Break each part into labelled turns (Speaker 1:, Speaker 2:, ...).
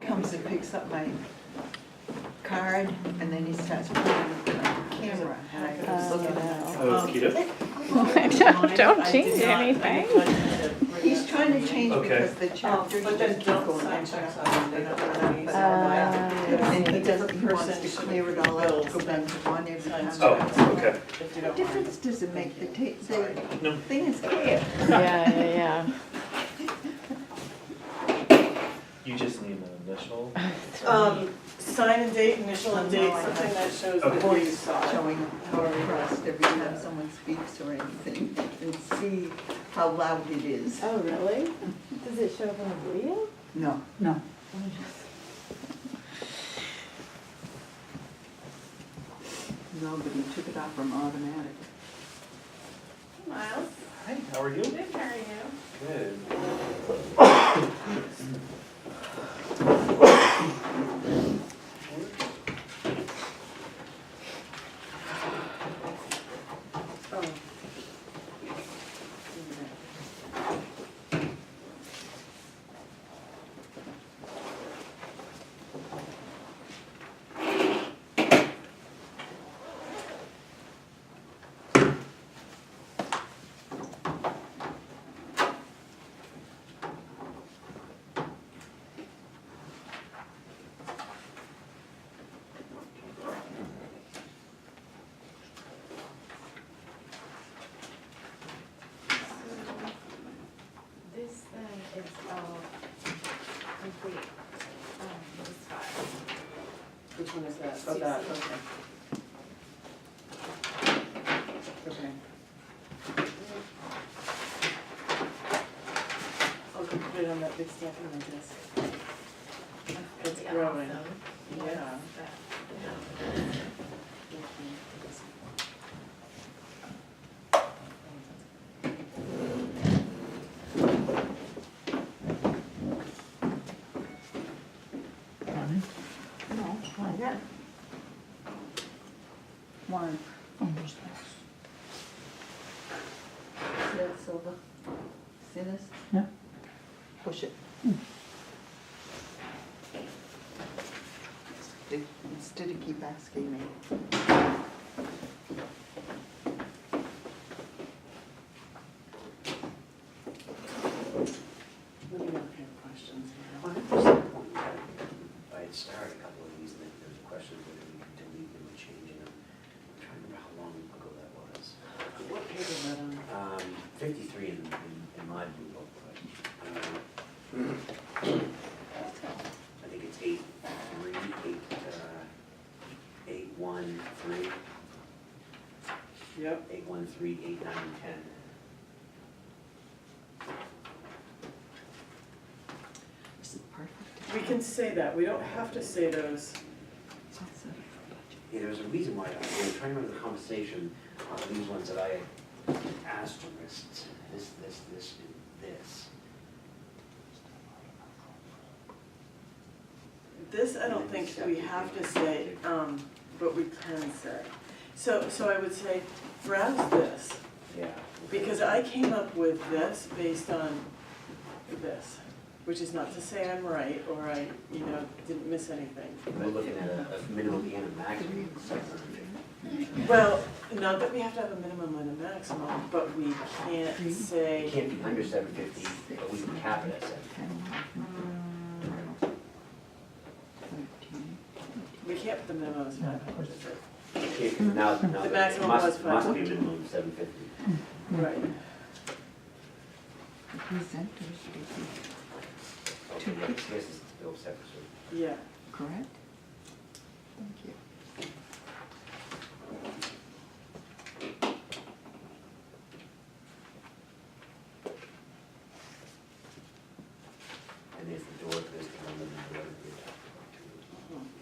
Speaker 1: goes and picks up my card, and then he starts putting it on the camera, and I can just look at that.
Speaker 2: Oh, that's Oh, cute.
Speaker 3: Don't- don't change anything.
Speaker 1: He's trying to change
Speaker 2: Okay.
Speaker 1: because the chapters
Speaker 4: Oh,
Speaker 1: just
Speaker 4: But there's
Speaker 1: keep
Speaker 4: don't
Speaker 1: going
Speaker 4: sign
Speaker 1: up
Speaker 4: checks
Speaker 1: and
Speaker 4: on them, they don't really
Speaker 1: up.
Speaker 3: Uh,
Speaker 1: And he doesn't, he wants
Speaker 4: Person
Speaker 1: to
Speaker 4: should
Speaker 1: clear it all out,
Speaker 4: bills
Speaker 1: go back to one every time.
Speaker 2: Oh, okay.
Speaker 4: If you
Speaker 1: What
Speaker 4: don't mind.
Speaker 1: difference does it make? The tape,
Speaker 4: Sorry.
Speaker 1: the
Speaker 2: No.
Speaker 1: thing is clear.
Speaker 3: Yeah, yeah, yeah.
Speaker 2: You just need an initial.
Speaker 4: Um, sign and date, initial and date, something that shows that
Speaker 2: Okay.
Speaker 4: you
Speaker 1: Voice
Speaker 4: saw it.
Speaker 1: showing how impressed every time someone speaks or anything, and see how loud it is.
Speaker 3: Oh, really? Does it show up on the wheel?
Speaker 1: No.
Speaker 5: No.
Speaker 1: No, but he took it off from automatic.
Speaker 4: Miles,
Speaker 2: Hi, how are you?
Speaker 4: good, how are you?
Speaker 2: Good.
Speaker 4: Oh.
Speaker 6: This thing is all complete, um, this file.
Speaker 4: Which one is that? Oh, that, okay. Okay. I'll go put it on that big stack on my desk. It's
Speaker 6: Yeah,
Speaker 4: growing.
Speaker 6: so,
Speaker 4: Yeah.
Speaker 6: but-
Speaker 5: No, why that?
Speaker 1: One.
Speaker 5: Almost.
Speaker 1: See that silver? See this?
Speaker 5: Yeah. Hmm.
Speaker 1: Push it. They- Instead of keep asking me.
Speaker 4: Let me know if you have questions.
Speaker 7: Well, I think there's some point that If I had started a couple of these, that there's a question of whether we could delete them or change them. I'm trying to remember how long ago that was.
Speaker 4: What page is that on?
Speaker 7: Um, fifty-three in, in, in my blue book, but, um, I think it's eight, three, eight, uh, eight, one, three,
Speaker 4: Yep.
Speaker 7: eight, one, three, eight, nine, and ten.
Speaker 1: This is perfect.
Speaker 4: We can say that, we don't have to say those.
Speaker 1: That's it.
Speaker 7: Yeah, there was a reason why, I- I'm trying to remember the conversation on these ones that I had asterisks, this, this, this, and this.
Speaker 4: This, I don't think we have to say, um, but we can say. So, so I would say, browse this,
Speaker 7: Yeah.
Speaker 4: because I came up with this based on this, which is not to say I'm right, or I, you know, didn't miss anything.
Speaker 7: We're looking at a a minimum and a maximum. of 750.
Speaker 4: Well, not that we have to have a minimum and a maximum, but we can't
Speaker 7: It
Speaker 4: say,
Speaker 7: can't be under seven fifty, but we can cap it at seven fifty.
Speaker 1: Thirteen.
Speaker 4: we can't put the minimum as five hundred, is it?
Speaker 7: It can't, 'cause now, now,
Speaker 4: The
Speaker 7: that- it
Speaker 4: maximum was
Speaker 7: must, must be
Speaker 4: 500.
Speaker 7: minimum seven fifty.
Speaker 4: Right.
Speaker 1: The presenters should be
Speaker 7: Okay, yeah, this is still separate,
Speaker 4: Yeah,
Speaker 1: correct? Thank you.
Speaker 7: and there's the door, there's the one, and the door that we talked about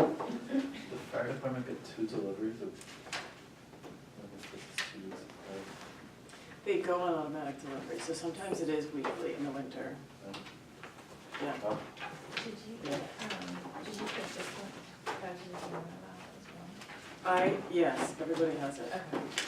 Speaker 7: too. Yeah, okay.
Speaker 2: The fire department get two deliveries of. I guess that's two weeks of
Speaker 4: they go on automatic delivery, so sometimes it is weekly in the winter,
Speaker 2: fire.
Speaker 4: yeah.
Speaker 2: Oh,
Speaker 6: Did you get, um, did you get this one? That was the one that I was
Speaker 4: I, yes, everybody has it.
Speaker 6: on. Okay.